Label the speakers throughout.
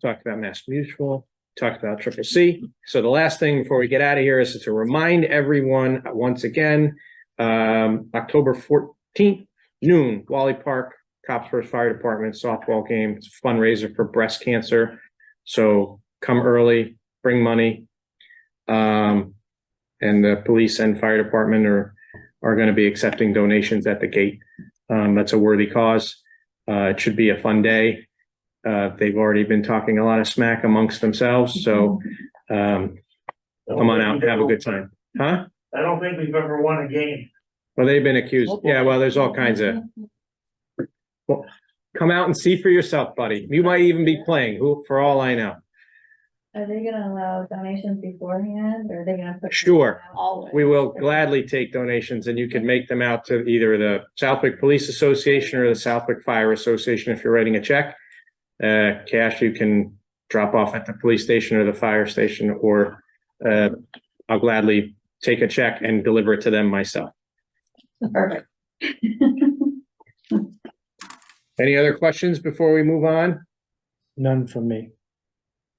Speaker 1: talked about Mass Mutual, talked about Triple C. So the last thing before we get out of here is to remind everyone uh, once again, um, October fourteenth, noon, Wally Park, Copsworth Fire Department softball game It's a fundraiser for breast cancer. So come early, bring money. Um, and the police and fire department are, are going to be accepting donations at the gate. Um, that's a worthy cause. Uh, it should be a fun day. Uh, they've already been talking a lot of smack amongst themselves, so, um, come on out and have a good time. Huh?
Speaker 2: I don't think we've ever won a game.
Speaker 1: Well, they've been accused. Yeah, well, there's all kinds of, come out and see for yourself, buddy. You might even be playing, who, for all I know.
Speaker 3: Are they gonna allow donations beforehand, or are they gonna put?
Speaker 1: Sure.
Speaker 3: Always.
Speaker 1: We will gladly take donations and you can make them out to either the Southwick Police Association or the Southwick Fire Association if you're writing a check. Uh, cash you can drop off at the police station or the fire station or, uh, I'll gladly take a check and deliver it to them myself.
Speaker 3: Perfect.
Speaker 1: Any other questions before we move on?
Speaker 4: None from me.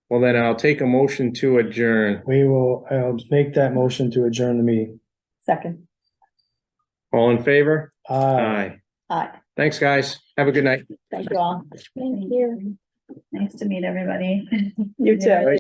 Speaker 1: Well, then I'll take a motion to adjourn.
Speaker 4: We will, I'll make that motion to adjourn the meeting.
Speaker 3: Second,
Speaker 1: All in favor?
Speaker 4: Aye.
Speaker 3: aye,
Speaker 1: Thanks, guys. Have a good night.
Speaker 3: thank you all. Thank you. Nice to meet everybody. You
Speaker 5: too.